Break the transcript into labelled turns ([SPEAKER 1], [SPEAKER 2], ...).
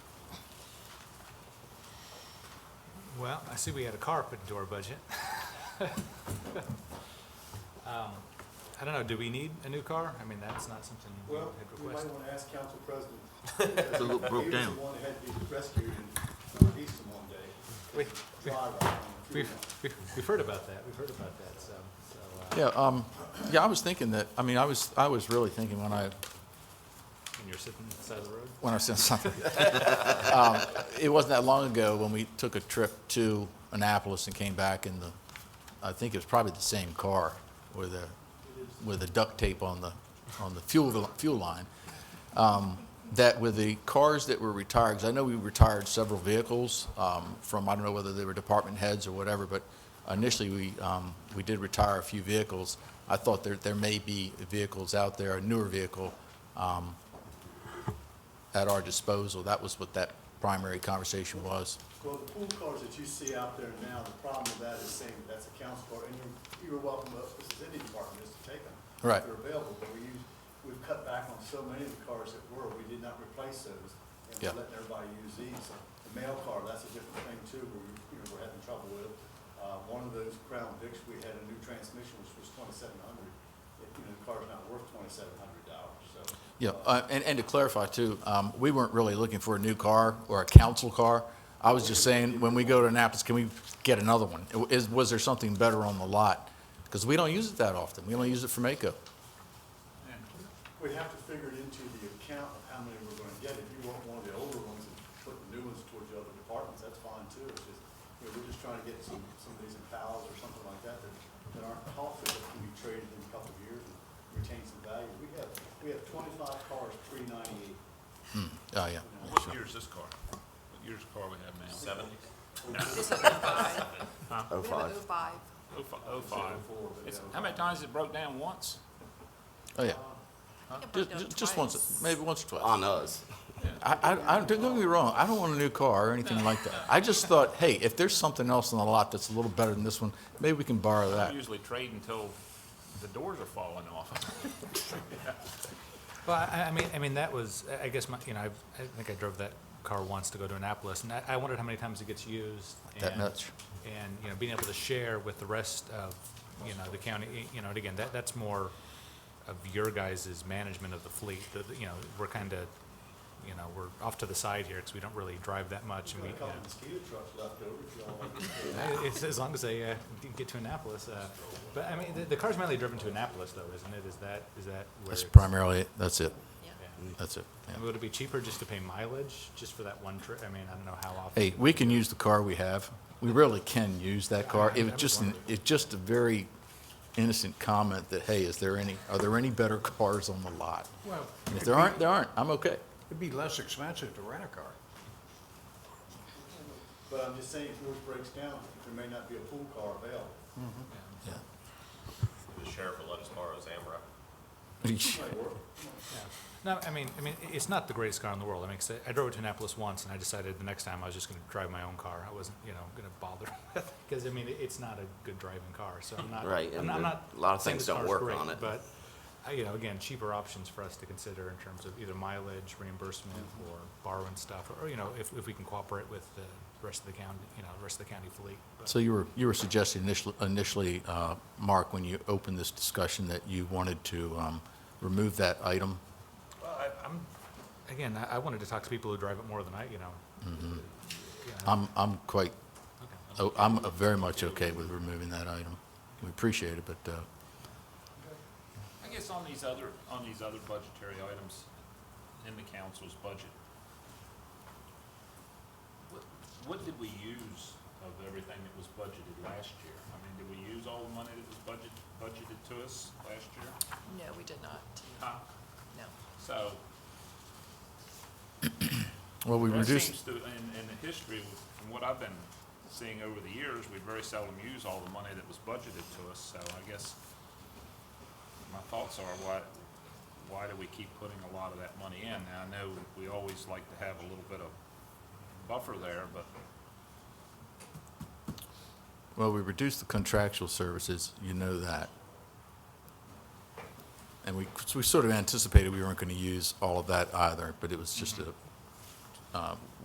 [SPEAKER 1] Well, I see we had a car put into our budget. Um, I don't know, do we need a new car? I mean, that's not something we had
[SPEAKER 2] Well, we might
[SPEAKER 1] requested.
[SPEAKER 2] want to ask council president.
[SPEAKER 3] It's a little broke
[SPEAKER 2] He
[SPEAKER 3] down.
[SPEAKER 2] was the one that had to be rescued uh, in Northeastern one day.
[SPEAKER 1] We- we-
[SPEAKER 2] Drive off on a
[SPEAKER 1] We've,
[SPEAKER 2] funeral.
[SPEAKER 1] we've we've heard about that, we've heard about that, so, so, uh,
[SPEAKER 4] Yeah, um, yeah, I was thinking that, I mean, I was, I was really thinking when I,
[SPEAKER 1] and you're sitting on the side of the road?
[SPEAKER 4] when I sent something. Um, It wasn't that long ago when we took a trip to Annapolis and came back in the, I think it was probably the same car with a, with a duct tape on the, on the fuel, fuel line. Um, That with the cars that were retired, because I know we retired several vehicles um, from, I don't know whether they were department heads or whatever, but initially we, um, we did retire a few vehicles. I thought there, there may be vehicles out there, a newer vehicle, um, at our disposal. That was what that primary conversation was.
[SPEAKER 2] Well, the pool cars that you see out there now, the problem with that is saying that's a council car, and you're, you're welcome, to- this is any department, is to take them.
[SPEAKER 4] Right.
[SPEAKER 2] If they're available, but we use, we've cut back on so many of the cars that were, we did not replace those. And
[SPEAKER 4] Yeah.
[SPEAKER 2] we're letting everybody use these. The mail car, that's a different thing too, where, we- you know, we're having trouble with. Uh, one of those Crown Vics, we had a new transmission, which was twenty-seven hundred. You know, the car's not worth twenty-seven hundred dollars, so.
[SPEAKER 4] Yeah, uh, and, and to clarify too, um, we weren't really looking for a new car or a council car. I was just saying, when we go to Annapolis, can we get another one? Is, was there something better on the lot? Because we don't use it that often. We only use it for Mako.
[SPEAKER 2] We have to figure it into the account of how many we're gonna get. If you want one of the older ones and put the new ones towards the other departments, that's fine too. It's just, you know, we're just trying to get some, some of these in pals or something like that that, that aren't costly, that can be traded in a couple of years and retain some value. We have, we have twenty-five cars pre ninety-eight.
[SPEAKER 4] Oh, yeah.
[SPEAKER 5] What year is this car? What year's car we have now? Seventy?
[SPEAKER 6] This is 05. We
[SPEAKER 3] Oh,
[SPEAKER 6] have an
[SPEAKER 3] five.
[SPEAKER 6] 05.
[SPEAKER 5] Oh, fi- oh, five.
[SPEAKER 2] Four, but,
[SPEAKER 5] It's,
[SPEAKER 2] uh,
[SPEAKER 5] how many times it broke down once?
[SPEAKER 4] Oh, yeah.
[SPEAKER 6] I think it broke
[SPEAKER 4] Just,
[SPEAKER 6] down
[SPEAKER 4] just- just
[SPEAKER 6] twice.
[SPEAKER 4] once, maybe once or twice.
[SPEAKER 3] On us.
[SPEAKER 4] I, I, I, don't get me wrong, I don't want a new car or anything like that. I just thought, hey, if there's something else on the lot that's a little better than this one, maybe we can borrow that.
[SPEAKER 5] We usually trade until the doors are falling off.
[SPEAKER 1] Well, I, I mean, I mean, that was, I- I guess, my, you know, I've, I think I drove that car once to go to Annapolis, and I, I wondered how many times it gets used.
[SPEAKER 4] That
[SPEAKER 1] and-
[SPEAKER 4] much.
[SPEAKER 1] And, you know, being able to share with the rest of, you know, the county, y- you know, and again, that, that's more of your guys' management of the fleet, that, you know, we're kind of, you know, we're off to the side here, because we don't really drive that much, and we,
[SPEAKER 2] We've
[SPEAKER 1] you
[SPEAKER 2] got uh, a couple
[SPEAKER 1] know.
[SPEAKER 2] mosquito trucks left over, if y'all want to.
[SPEAKER 1] It's as long as they uh, d- get to Annapolis. uh, But I mean, the, the car's mainly driven to Annapolis though, isn't it? Is that, is that where?
[SPEAKER 4] That's
[SPEAKER 1] it's-
[SPEAKER 4] primarily, it. that's it.
[SPEAKER 6] Yeah.
[SPEAKER 1] yeah.
[SPEAKER 4] That's it. yeah.
[SPEAKER 1] And would it be cheaper just to pay mileage, just for that one trip? I mean, I don't know how often.
[SPEAKER 4] hey, we can use the car we have. We really can use that car. It was just, an- it's just a very innocent comment that, hey, is there any, are there any better cars on the lot?
[SPEAKER 7] Well,
[SPEAKER 4] And if there aren't, there aren't. I'm okay.
[SPEAKER 7] it'd be less expensive to rent a car.
[SPEAKER 2] But I'm just saying, if yours breaks down, there may not be a pool car available.
[SPEAKER 4] Yeah.
[SPEAKER 8] The sheriff will let us borrow his AMRA.
[SPEAKER 2] Might work.
[SPEAKER 1] No, I mean, I mean, i- it's not the greatest car in the world. I mean, 'cause I- I drove it to Annapolis once, and I decided the next time I was just going to drive my own car. I wasn't, you know, going to bother with, because I mean, it- it's not a good driving car, so I'm not.
[SPEAKER 3] Right,
[SPEAKER 1] I'm
[SPEAKER 3] and
[SPEAKER 1] not- I'm
[SPEAKER 3] there-
[SPEAKER 1] not
[SPEAKER 3] a lot of
[SPEAKER 1] saying
[SPEAKER 3] things
[SPEAKER 1] this
[SPEAKER 3] don't
[SPEAKER 1] car's
[SPEAKER 3] work
[SPEAKER 1] great,
[SPEAKER 3] on it.
[SPEAKER 1] But, uh, you know, again, cheaper options for us to consider in terms of either mileage, reimbursement,
[SPEAKER 3] Mm-hmm.
[SPEAKER 1] or borrowing stuff, or, you know, if, if we can cooperate with the rest of the county, you know, the rest of the county fleet. But-
[SPEAKER 4] So you were, you were suggesting initially, initially, uh, Mark, when you opened this discussion, that you wanted to um, remove that item?
[SPEAKER 1] Well, I, I'm, again, I, I wanted to talk to people who drive it more than I, you know. you know,
[SPEAKER 4] I'm, I'm quite,
[SPEAKER 1] okay.
[SPEAKER 4] oh, I'm very much okay with removing that item. We appreciate it, but, uh,
[SPEAKER 5] I guess on these other, on these other budgetary items in the council's budget, what, what did we use of everything that was budgeted last year? I mean, did we use all the money that was budget, budgeted to us last year?
[SPEAKER 6] No, we did not.
[SPEAKER 5] Huh?
[SPEAKER 6] No.
[SPEAKER 5] So,
[SPEAKER 4] well, we
[SPEAKER 5] That
[SPEAKER 4] reduced.
[SPEAKER 5] seems to, in, in the history, from what I've been seeing over the years, we very seldom use all the money that was budgeted to us, so I guess my thoughts are, why, why do we keep putting a lot of that money in? Now, I know we always like to have a little bit of buffer there, but
[SPEAKER 4] Well, we reduced the contractual services, you know that. And we, we sort of anticipated we weren't going to use all of that either, but it was just a, um,